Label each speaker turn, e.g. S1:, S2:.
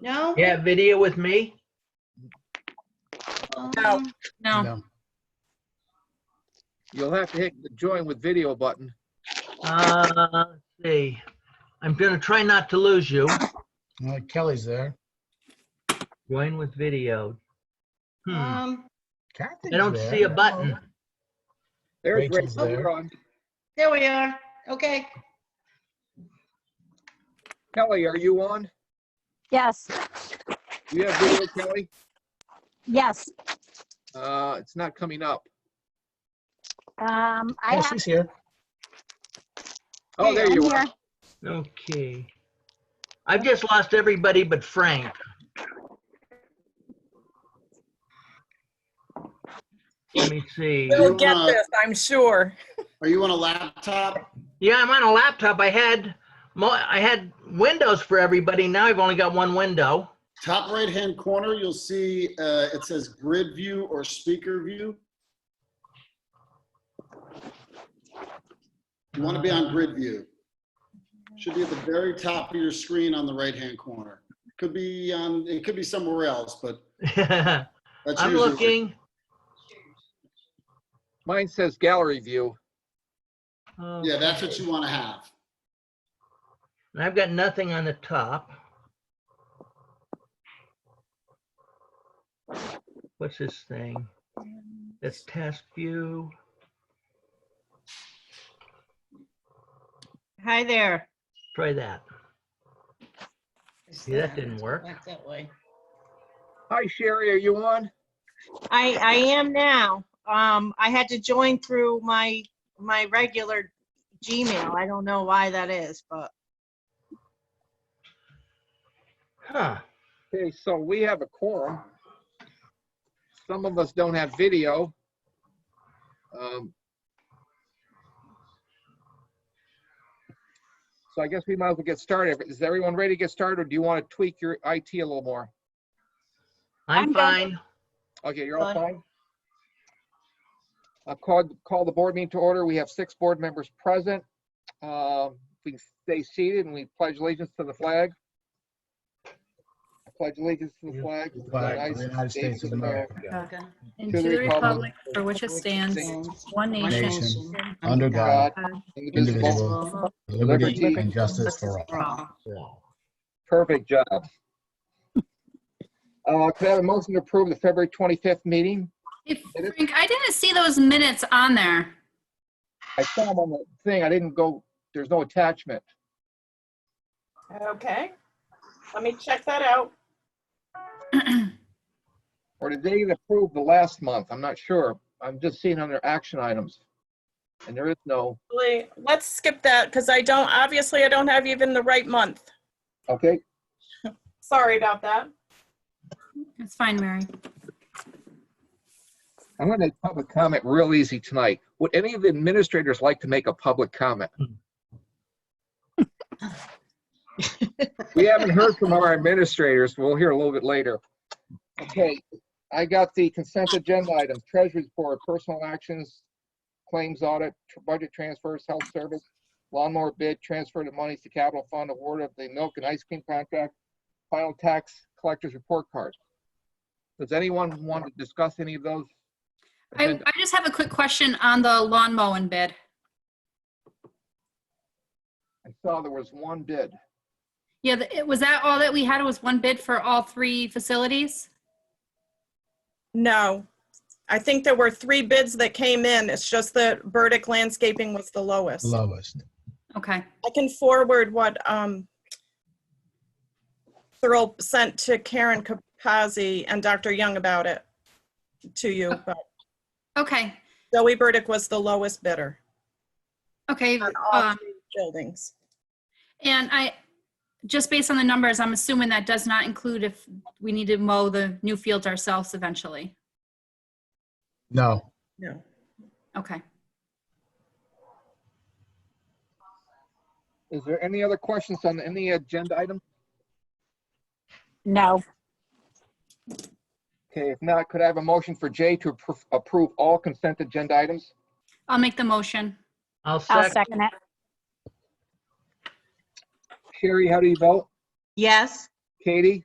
S1: No?
S2: Yeah, video with me.
S3: No.
S1: Um,
S3: No,
S4: You'll have to hit the join with video button.
S2: Uh, let's see. I'm gonna try not to lose you.
S5: Well, Kelly's there.
S2: Join with video. Hmm, I
S1: Um,
S5: Kathy's
S2: don't
S5: there.
S2: see a button.
S4: There's
S5: Rachel's
S4: Rachel's
S5: there.
S4: on.
S1: there we are. Okay.
S4: Kelly, are you on?
S6: Yes,
S4: Do you have video, Kelly?
S6: yes.
S4: Uh, it's not coming up.
S6: Um, I
S5: Oh,
S6: have,
S5: she's here.
S4: Oh, there
S6: I'm
S4: you are.
S6: here.
S2: Okay. I've just lost everybody but Frank. Let me see.
S3: we'll get
S7: wanna-
S3: this, I'm sure.
S7: Are you on a laptop?
S2: Yeah, I'm on a laptop. I had, mo- I had windows for everybody. Now I've only got one window.
S7: Top right-hand corner, you'll see, uh, it says grid view or speaker view. You want to be on grid view. Should be at the very top of your screen on the right-hand corner. Could be on, it could be somewhere else, but that's
S2: I'm
S7: usually-
S2: looking.
S4: Mine says gallery view.
S7: Yeah, that's what you want to have.
S2: And I've got nothing on the top. What's this thing? That's task view.
S1: Hi there.
S2: Try that. See, that didn't work.
S1: Went that way.
S4: Hi, Sherry, are you on?
S1: I, I am now. Um, I had to join through my, my regular Gmail. I don't know why that is, but
S2: Huh.
S4: Okay, so we have a quorum. Some of us don't have video. Um, So I guess we might as well get started. Is everyone ready to get started, or do you want to tweak your IT a little more?
S2: I'm
S1: I'm good.
S2: fine.
S4: Okay, you're all
S1: Fine.
S4: fine? I'll call, call the board meeting to order. We have six board members present. Um, We stay seated and we pledge allegiance to the flag. I Pledge allegiance to the flag. of the
S5: Flag of the United States of America.
S8: And to the republic for which it stands, one nation,
S5: Nation, under God,
S4: Indivisible.
S5: indivisible, with liberty and justice for all.
S4: Perfect job. Uh, Could I have a motion to approve the February 25th meeting?
S8: Hey, Frank, I didn't see those minutes on there.
S4: I saw them on the thing. I didn't go, there's no attachment.
S9: Okay, let me check that out.
S4: Or did they approve the last month? I'm not sure. I'm just seeing under action items. And there is no,
S3: Really,
S9: Let's skip that because I don't, obviously I don't have even the right month.
S4: okay,
S9: Sorry about that.
S8: It's fine, Mary.
S4: I'm gonna make public comment real easy tonight. Would any of the administrators like to make a public comment? We haven't heard from our administrators. We'll hear a little bit later. Okay, I got the consent agenda items, treasury report, personal actions, claims audit, tr- budget transfers, health service, lawnmower bid, transfer of monies to capital fund, award of the milk and ice cream contract, final tax collector's report card. Does anyone want to discuss any of those?
S8: I, I just have a quick question on the lawn mowing bid.
S4: I saw there was one bid.
S8: Yeah, the- it- was that all that we had was one bid for all three facilities?
S9: No, I think there were three bids that came in. It's just that Burdick Landscaping was the lowest.
S5: Lowest.
S8: Okay,
S9: I can forward what um Thurl sent to Karen Capazzi and Dr. Young about it to you, but
S8: okay,
S9: Zoe Burdick was the lowest bidder
S8: okay.
S9: on all
S8: Um,
S9: three buildings.
S8: and I, just based on the numbers, I'm assuming that does not include if we need to mow the new fields ourselves eventually.
S5: No,
S9: No.
S8: Okay.
S4: Is there any other questions on any agenda item?
S6: no,
S4: Okay, if not, could I have a motion for Jay to appro- approve all consent agenda items?
S8: I'll make the motion.
S2: I'll
S6: I'll
S2: second.
S6: second it.
S4: Sherry, how do you vote?
S1: yes.
S4: Katie?